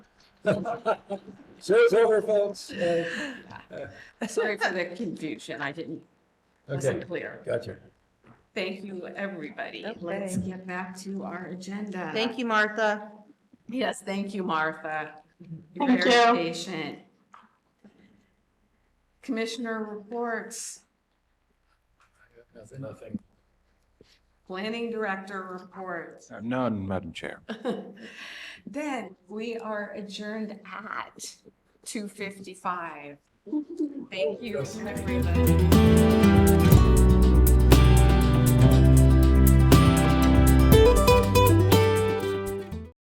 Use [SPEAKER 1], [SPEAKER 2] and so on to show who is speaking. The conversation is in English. [SPEAKER 1] So it's over, folks. Uh,
[SPEAKER 2] Sorry for the confusion. I didn't,
[SPEAKER 1] Okay,
[SPEAKER 2] wasn't clear.
[SPEAKER 1] gotcha.
[SPEAKER 2] Thank you, everybody. Let's get back to our agenda.
[SPEAKER 3] Thank you, Martha.
[SPEAKER 2] Yes, thank you, Martha. You're
[SPEAKER 4] Thank
[SPEAKER 2] very
[SPEAKER 4] you.
[SPEAKER 2] Patient. Commissioner reports,
[SPEAKER 1] Nothing.
[SPEAKER 2] planning director reports.
[SPEAKER 5] None, Madam Chair.
[SPEAKER 2] Then we are adjourned at two fifty-five. Thank you, everybody.